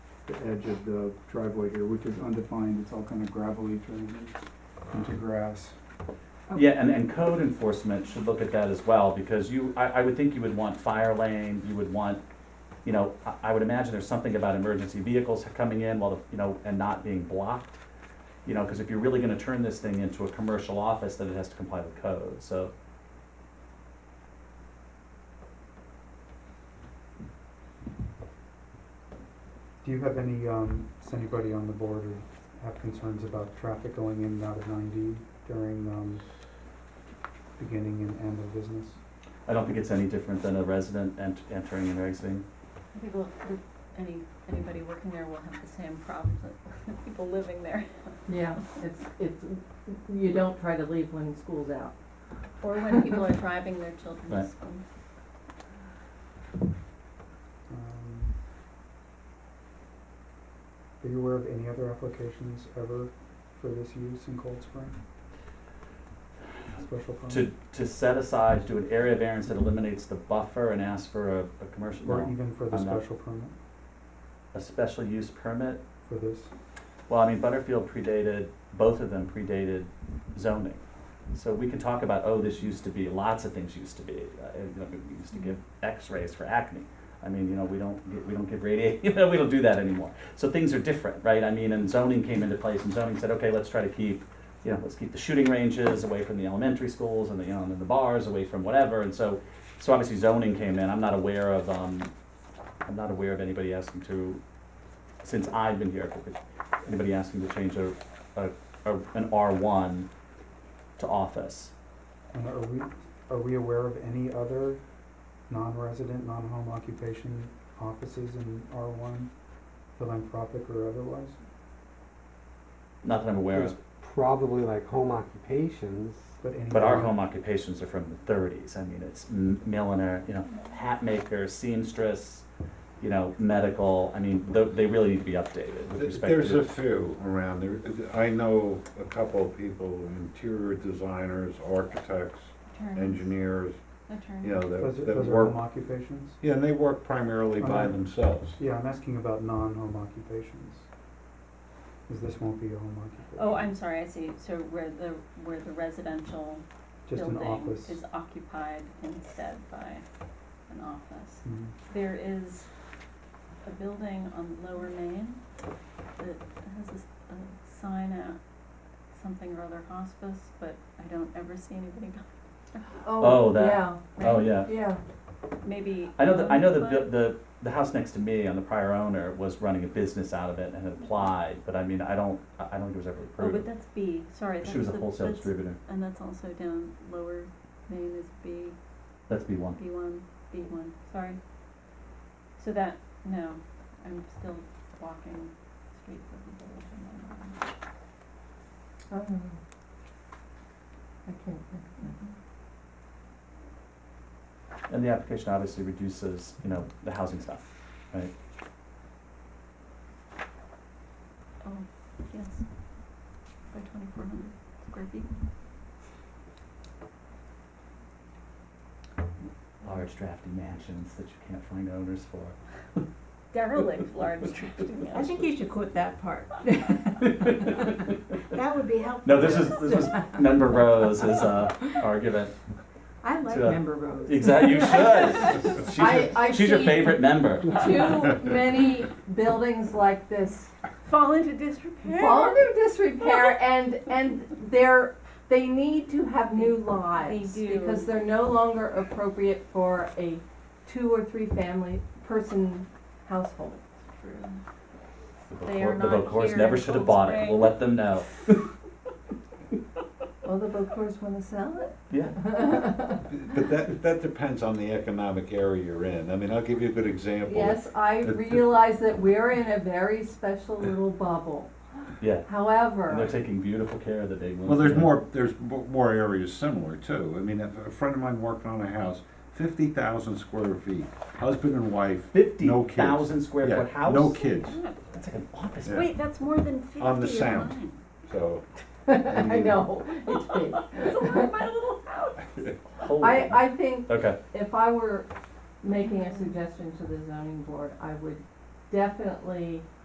the edge of the driveway here, which is undefined, it's all kind of gravelly turned into grass. Mm-hmm. Oh. Yeah, and, and code enforcement should look at that as well, because you, I, I would think you would want fire lane, you would want, you know, I, I would imagine there's something about emergency vehicles coming in while, the you know, and not being blocked. You know, because if you're really gonna turn this thing into a commercial office, then it has to comply with code, so. Do you have any, um, does anybody on the board or have concerns about traffic going in and out of ninety during, um, beginning and end of business? I don't think it's any different than a resident ent- entering and exiting. People, any, anybody working there will have the same problems that people living there. Yeah, it's, it's, you don't try to leave when school's out. Or when people are driving their children to Right. school. Um, Are you aware of any other applications ever for this use in Cold Spring? Special To, permit? to set aside, do an area variance that eliminates the buffer and ask for a, a commercial, Or no, even for the I'm not- special permit a special use permit? for this? Well, I mean, Butterfield predated, both of them predated zoning. So we can talk about, oh, this used to be, lots of things used to be, uh, you know, we used to give x-rays for acne. I mean, you know, we don't, gi- we don't give radiation, you know, we don't do that anymore. So things are different, right? I mean, and zoning came into place and zoning said, okay, let's try to keep, you know, let's keep the shooting ranges away from the elementary schools and the, you know, and the bars, away from whatever. And so, so obviously zoning came in. I'm not aware of, um, I'm not aware of anybody asking to, since I've been here, if it- anybody asking to change a, a, a, an R one to office. And are we, are we aware of any other non-resident, non-home occupation offices in R one, philanthropic or otherwise? Not that I'm aware of, probably like home occupations. But any. but our home occupations are from the thirties. I mean, it's m- milliner, you know, hat maker, seamstress, you know, medical. I mean, tho- they really need to be updated with Th- respect to. There's a few around there. I know a couple of people, interior designers, architects, Attorney, engineers, attorney. you know, Those, that, are- that those are home work. occupations? Yeah, and they work primarily by Okay. themselves. Yeah, I'm asking about non-home occupations. Cause this won't be a home occupation. Oh, I'm sorry, I see, so where the, where the residential Just an building office. is occupied instead by an office. Mhm. There is a building on Lower Main that has a, s- a sign out, something or other hospice, but I don't ever see anybody go Oh, that. Yeah, Oh, yeah. yeah. maybe. I know that, I know the, Amazon? bu- the, the house next to me on the prior owner was running a business out of it and had applied, but I mean, I don't, I I don't think it was ever Oh, but approved. that's B, sorry, that's She was a the- wholesale that's- distributor. And that's also down lower Maine is B, That's B one. B one, B one, sorry. So that, no, I'm still walking streets of the village and I'm not- Oh. I can't think And the application obviously reduces, you know, the housing stuff. oh, yes, by twenty-four hundred square feet. large drafty mansions that you can't find owners for. Derelict large drifting I think you should quote that part. That would be helpful. No, this is this was Member Rose's uh, argument. I like to- member rows. Exactly, you should. She's, I- I your, she's your see- favorite member. Too many buildings like this Fall into disrepair. fall into disrepair and, and they're, they need to have new lives. do. Because they're no longer appropriate for a two or three family person household. They are the not Bocors here never in should have Cold bought it. Spring. We'll let them know. Well, the Bocors wanna sell it? Yeah. But that, that depends on the economic area you're in. I mean, I'll give you a good example. Yes, I The- the- realize that we're in a very special little bubble. Yeah. And they're However, taking beautiful care of the big ones. Well, there's more, there's mo- more areas similar too. I mean, a a friend of mine worked on a house, fifty thousand square feet, husband and wife, Fifty no kids. thousand square Yeah, foot house. No kids, God, That's like an office. Yeah. Wait, that's more than fifty On the of sound. mine. so. I know, it's big. That's a lot of my little house. Holy I, I think okay. if I were making a suggestion to the zoning board, I would definitely